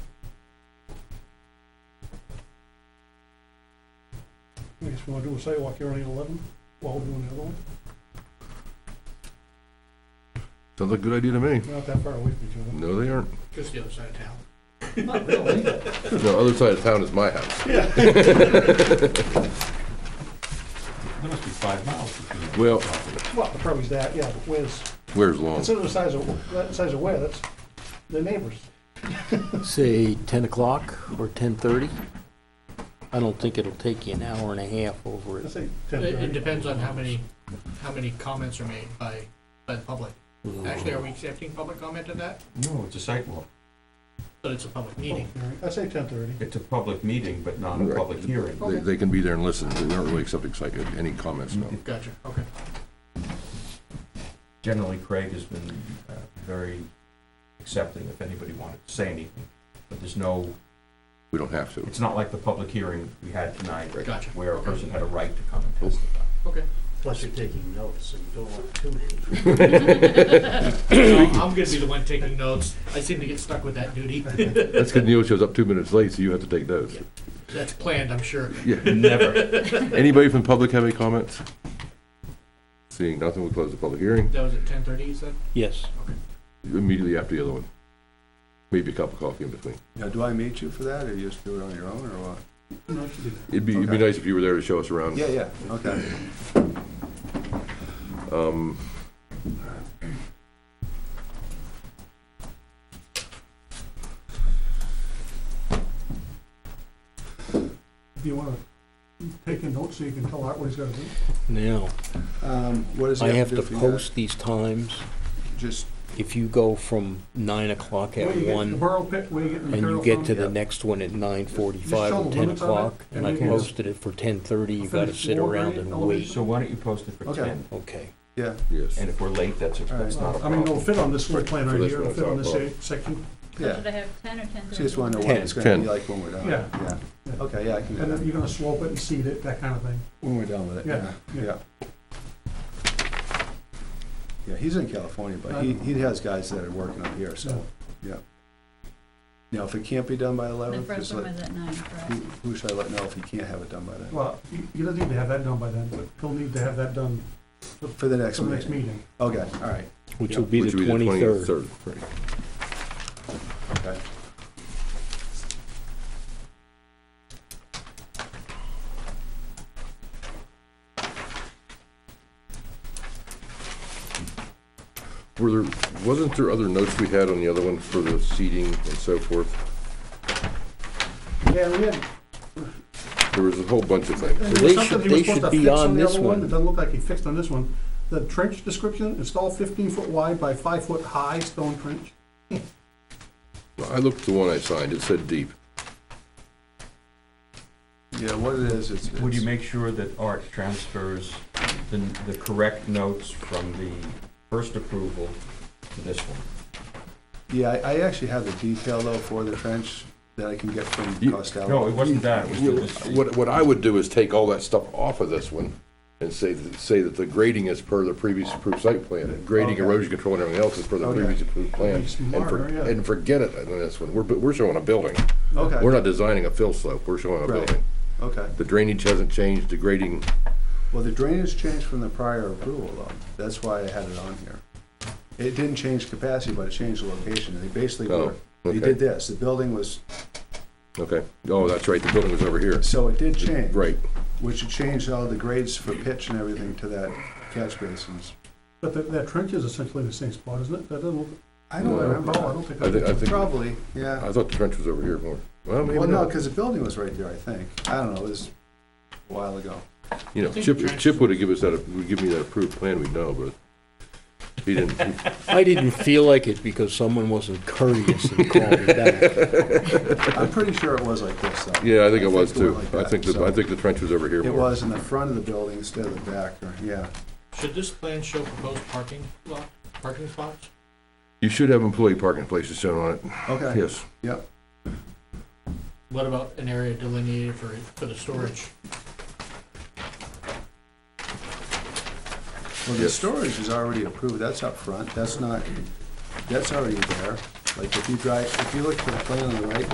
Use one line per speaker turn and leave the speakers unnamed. If you want to do a sidewalk hearing at eleven, while we're doing the other one,
Sounds like a good idea to me.
we're not that far away from each other.
No, they aren't.
Just the other side of town.
Not really.
No, other side of town is my house.
There must be five miles between them.
Well,
Well, the problem is that, yeah, but where's,
where's Long?
consider the size of, that size of where, that's the neighbors.
Say 10 o'clock or 10:30? I don't think it'll take you an hour and a half over
Let's say
it.
ten
It, it
thirty.
depends on how many, how many comments are made by, by the public. Actually, are we accepting public comment on that?
No, it's a sidewalk.
But it's a public meeting.
I say ten thirty.
It's a public meeting, but not a
Right.
public hearing.
They, they can be there and listen. We aren't really accepting psych, any comments, no.
Gotcha, okay.
Generally, Craig has been uh, very accepting if anybody wanted to say anything. But there's no,
We don't have to.
it's not like the public hearing we had tonight
Gotcha.
where a person had a right to come and testify.
Plus you're taking notes and you don't want to.
So I'm gonna be the one taking notes. I seem to get stuck with that duty.
That's because Neil shows up two minutes late, so you have to take those.
That's planned, I'm sure.
Yeah.
Never.
Anybody from the public have any comments? Seeing nothing, we close the public hearing
That was at ten thirty, you said?
Yes.
immediately after the other one. Maybe a cup of coffee in between.
Now, do I meet you for that, or you just do it on your own, or what?
It'd be, it'd be
Okay.
nice if you were there to show us around.
Yeah, yeah, okay.
Um,
Do you want to take a note so you can tell Art what he's got to do?
Now,
Um, What does he
I have
have to
to
do for you guys?
post these times.
Just,
If you go from 9 o'clock
Where
at
you get the
1
Borough pit, where you get the
and you
material
get to
from?
the
Yeah.
next one at
Just show
9:45 or
the
10
limits on it,
o'clock,
and
and I
then you just-
posted it for 10:30, you gotta
Finish
sit
lower
around
grade,
and wait.
elevation.
So why don't you post it for
Okay.
10?
Okay.
yeah,
yes.
And if we're late, that's, a- that's not a
I mean,
problem.
it'll fit on this floor plan
For
right
this
here,
one,
it'll fit on
it's
this
not a
uh, section,
yeah.
Should I have ten or ten thirty?
So you just want to know what it's going to
Ten.
be like when we're done?
Yeah.
Yeah, okay, yeah, I can do
and then you're
that.
gonna slope it and seed it, that kind of thing.
When we're done with it, yeah,
Yeah,
yeah. Yeah, he's in California, but he, he has guys that are working up here, so, yeah. Now, if it can't be done by
The
eleven,
first
just
one
let,
was at nine,
who,
correct?
who should I let know if he can't have it done by then?
Well, you- you don't need to have that done by then, but he'll need to have that done
For the next
for the next
meeting?
meeting.
Okay, all right,
Which will be the 23rd.
23rd, right.
okay.
Were there, wasn't there other notes we had on the other one for the seating and so forth?
Yeah, we had,
There was a whole bunch of things.
And there
They
was something
should-
he was
they
supposed to
should be
fix
on
the
this
other
one.
It doesn't look like he fixed on this one. The trench description, install fifteen foot wide by five foot high stone trench.
I looked at the one I signed, it said deep.
Yeah, what it is, it's.
Would you
it's-
make sure that Art transfers the, the correct notes from the first approval to this one?
Yeah, I, I actually have the detail though for the trench that I can get from
You-
Costello.
No, it wasn't that, it was the- was the,
What, what I would do is take all that stuff off of this one and say, that- say that the grading is per the previous approved site plan. Grading,
Okay.
erosion control and everything else is per the
Okay.
previous approved plan.
That'd be
And for-
smarter, yeah.
And forget it on this one. We're, bu- we're showing a building.
Okay.
We're not designing a fill slope, we're showing a
Right.
building.
Okay.
The drainage hasn't changed, the grading,
Well, the drainage changed from the prior approval though. That's why I had it on here. It didn't change capacity, but it changed the location. They basically were,
Oh,
they
okay.
did this. The building was,
okay. Oh, that's right, the building was over here.
so it did change.
Right.
Which changed all the grades for pitch and everything to that catch basins.
But that, that trench is essentially the same spot, isn't it? That doesn't look,
I don't
No.
remember.
no, I don't think.
I thi- I think-
Probably, yeah.
I thought the trench was over here more. Well, maybe
Well, no,
not.
because the building was right there, I think. I don't know, it was a while ago.
You know, Chip, if Chip would've given us that, would give me that approved plan, we'd know, but he didn't.
I didn't feel like it because someone wasn't courteous and called me back.
I'm pretty sure it was like this though.
Yeah, I think it was
went
too.
like
I
that,
think, the-
so-
I think the trench was over here
It
more.
was in the front of the building instead of the back, or, yeah.
Should this plan show proposed parking lot, parking spots?
You should have employee parking places shown on it,
Okay,
yes.
yep.
What about an area delineated for, for the storage?
Well, the
Yes.
storage is already approved, that's up front, that's not, that's already there. Like, if you drive, if you look to the plan on the right,